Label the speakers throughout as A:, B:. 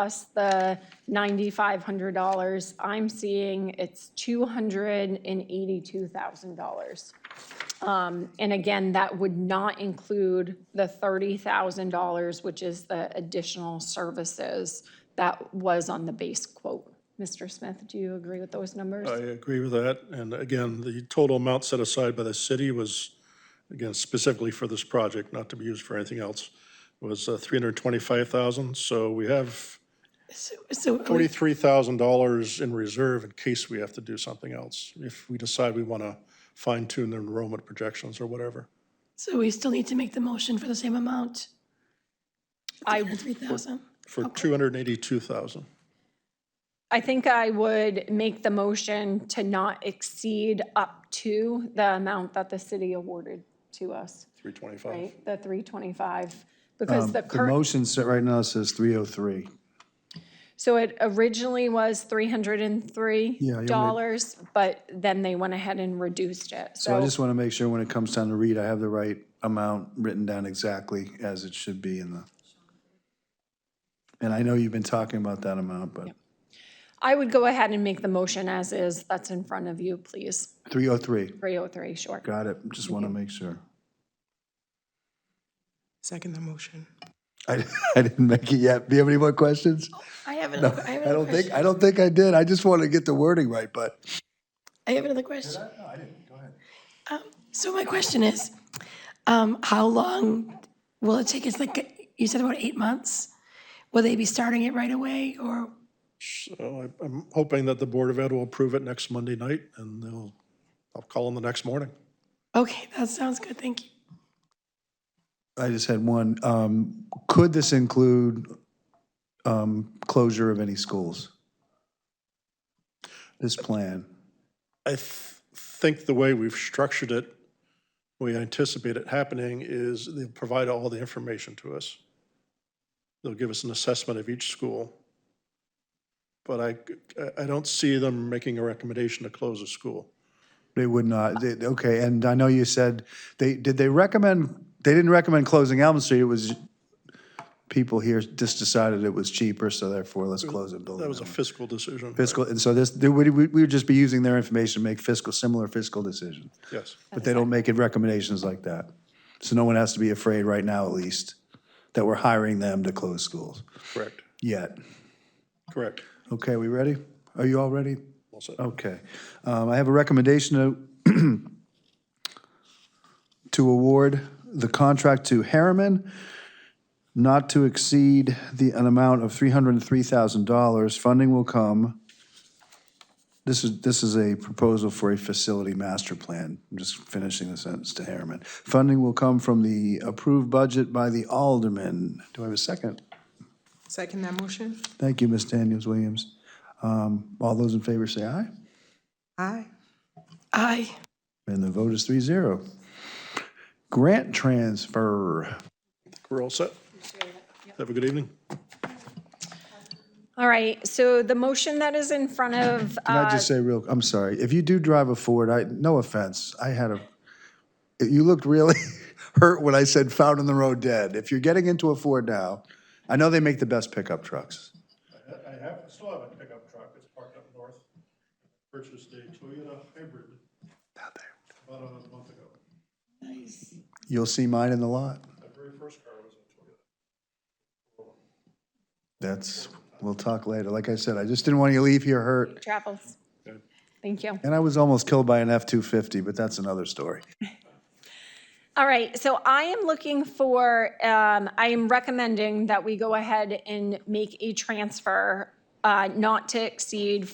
A: plus the ninety-five hundred dollars, I'm seeing it's two hundred and eighty-two thousand dollars. Um, and again, that would not include the thirty thousand dollars, which is the additional services that was on the base quote. Mr. Smith, do you agree with those numbers?
B: I agree with that. And again, the total amount set aside by the city was, again, specifically for this project, not to be used for anything else, was uh, three hundred twenty-five thousand. So we have
A: So
B: forty-three thousand dollars in reserve in case we have to do something else, if we decide we want to fine tune the enrollment projections or whatever.
C: So we still need to make the motion for the same amount,
A: I
C: three thousand.
B: For two hundred and eighty-two thousand.
A: I think I would make the motion to not exceed up to the amount that the city awarded to us,
B: Three twenty-five.
A: right? The 325, because the
D: The
A: current,
D: motion set right now says 303.
A: so it originally was
D: Yeah, you'll need-
A: $303, but then they went ahead and reduced it.
D: So I
A: So
D: just want to make sure when it comes time to read, I have the right amount written down exactly as it should be in the. And I know you've been talking about that amount, but
A: I would go ahead and make the motion as is, that's in front of you, please.
D: 303,
A: 303, sure.
D: got it, just want to make sure.
E: Second the motion.
D: I, I didn't make it yet. Do you have any more questions?
C: I have
D: No,
C: another, I have
D: I
C: another
D: don't think,
C: question.
D: I don't think I did. I just wanted to get the wording right, but.
C: I have another question. Um,
D: I didn't, go ahead.
C: So my question is, um, how long will it take? It's like, you said about eight months? Will they be starting it right away or,
B: So I- I'm hoping that the Board of Ed will approve it next Monday night, and they'll, I'll call them the next morning.
C: okay, that sounds good, thank you.
D: I just had one. Um, Could this include um, closure of any schools? This plan?
B: I th- think the way we've structured it, we anticipate it happening, is they'll provide all the information to us. They'll give us an assessment of each school. But I, I- I don't see them making a recommendation to close a school.
D: They would not, they- okay, and I know you said, they, did they recommend, they didn't recommend closing Elm Street, it was, people here just decided it was cheaper, so therefore let's close it.
B: That was a fiscal decision.
D: Fiscal, and so this, they would- we we would just be using their information to make fiscal, similar fiscal decisions.
B: Yes.
D: But they don't make it recommendations like that. So no one has to be afraid right now, at least, that we're hiring them to close schools
B: Correct.
D: yet.
B: Correct.
D: Okay, we ready? Are you all ready?
B: All set.
D: Okay. Um, I have a recommendation to, to award the contract to Harriman not to exceed the, an amount of $303,000. Funding will come. This is, this is a proposal for a facility master plan. I'm just finishing the sentence to Harriman. Funding will come from the approved budget by the alderman. Do I have a second?
E: Second that motion.
D: Thank you, Ms. Daniels Williams. Um, All those in favor say aye.
E: Aye.
C: Aye,
D: And the vote is 3-0. Grant transfer.
B: We're all set. Have a good evening.
A: All right, so the motion that is in front of,
D: Can I
A: uh,
D: just say real, I'm sorry, if you do drive a Ford, I, no offense, I had a, you looked really hurt when I said found on the road dead. If you're getting into a Ford now, I know they make the best pickup trucks.
B: I have, still have a pickup truck that's parked up north. Purchased a Toyota hybrid
D: Out there.
B: about a month ago.
D: You'll see mine in the lot.
B: My very first car was a Toyota.
D: That's, we'll talk later. Like I said, I just didn't want you to leave here hurt.
A: travels. Thank you.
D: And I was almost killed by an F-250, but that's another story.
A: All right, so I am looking for, um, I am recommending that we go ahead and make a transfer uh, not to exceed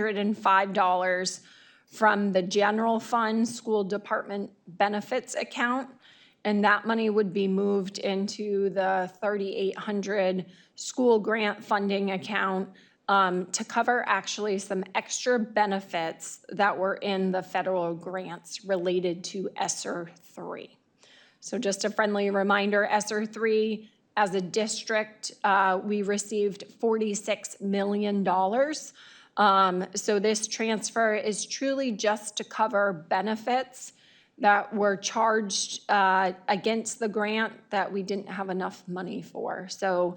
A: $42,305 from the general fund school department benefits account. And that money would be moved into the 3,800 school grant funding account um, to cover actually some extra benefits that were in the federal grants related to ESSER three. So just a friendly reminder, ESSER three, as a district, uh, we received forty-six million dollars. Um, So this transfer is truly just to cover benefits that were charged uh, against the grant that we didn't have enough money for. So